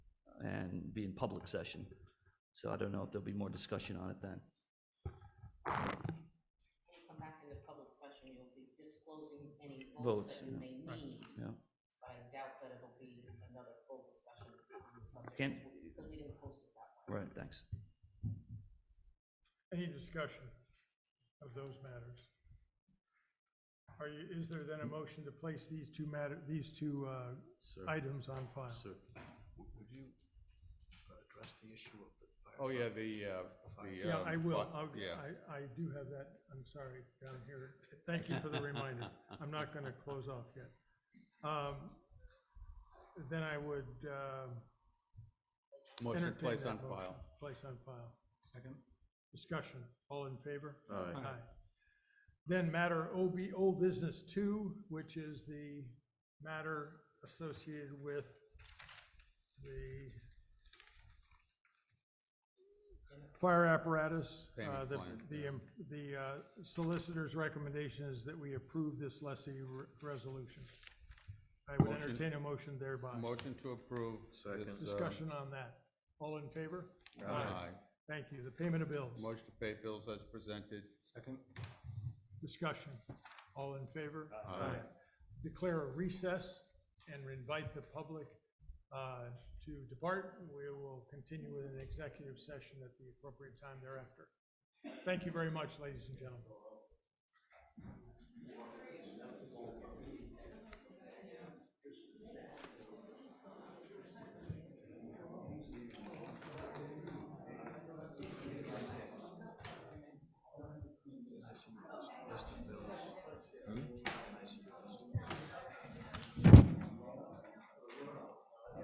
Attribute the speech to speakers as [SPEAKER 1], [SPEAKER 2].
[SPEAKER 1] and be in public session. So I don't know if there'll be more discussion on it then.
[SPEAKER 2] When you come back into public session, you'll be disclosing any
[SPEAKER 1] Votes,
[SPEAKER 2] votes that you
[SPEAKER 1] yeah,
[SPEAKER 2] may need,
[SPEAKER 1] Yeah.
[SPEAKER 2] but I doubt that it'll be another full discussion on the subject.
[SPEAKER 1] Can't-
[SPEAKER 2] Because we didn't post it that way.
[SPEAKER 1] Right, thanks.
[SPEAKER 3] Any discussion of those matters? Are you, is there then a motion to place these two matter, these two uh,
[SPEAKER 4] Sir,
[SPEAKER 3] items on file?
[SPEAKER 4] sir, w- would you uh, address the issue of the fire?
[SPEAKER 5] Oh, yeah, the, uh, the.
[SPEAKER 3] Yeah,
[SPEAKER 5] um,
[SPEAKER 3] I will.
[SPEAKER 5] fuck,
[SPEAKER 3] I'll-
[SPEAKER 5] Yeah,
[SPEAKER 3] I, I do have that, I'm sorry, down here. Thank you for the reminder. I'm not going to close off yet. Um, Then I would um,
[SPEAKER 5] motion
[SPEAKER 3] entertain
[SPEAKER 5] place
[SPEAKER 3] that
[SPEAKER 5] on
[SPEAKER 3] motion.
[SPEAKER 5] file.
[SPEAKER 3] Place on file. Second. Discussion, all in favor?
[SPEAKER 4] Aye.
[SPEAKER 3] Then matter OB, old business two, which is the matter associated with the fire apparatus.
[SPEAKER 5] Payment
[SPEAKER 3] Uh, the-
[SPEAKER 5] plan,
[SPEAKER 3] The,
[SPEAKER 5] yeah.
[SPEAKER 3] um, the uh, solicitor's recommendation is that we approve this lessee re- resolution. I would
[SPEAKER 5] Motion.
[SPEAKER 3] entertain a motion thereby.
[SPEAKER 5] Motion to approve.
[SPEAKER 4] Second.
[SPEAKER 5] this, uh,
[SPEAKER 3] Discussion on that. All in favor?
[SPEAKER 5] Aye.
[SPEAKER 3] Thank you. The payment of bills,
[SPEAKER 5] Motion to pay bills as presented.
[SPEAKER 4] Second?
[SPEAKER 3] discussion. All in favor?
[SPEAKER 5] Aye.
[SPEAKER 3] Declare a recess and invite the public uh, to depart. We will continue with an executive session at the appropriate time thereafter. Thank you very much, ladies and gentlemen.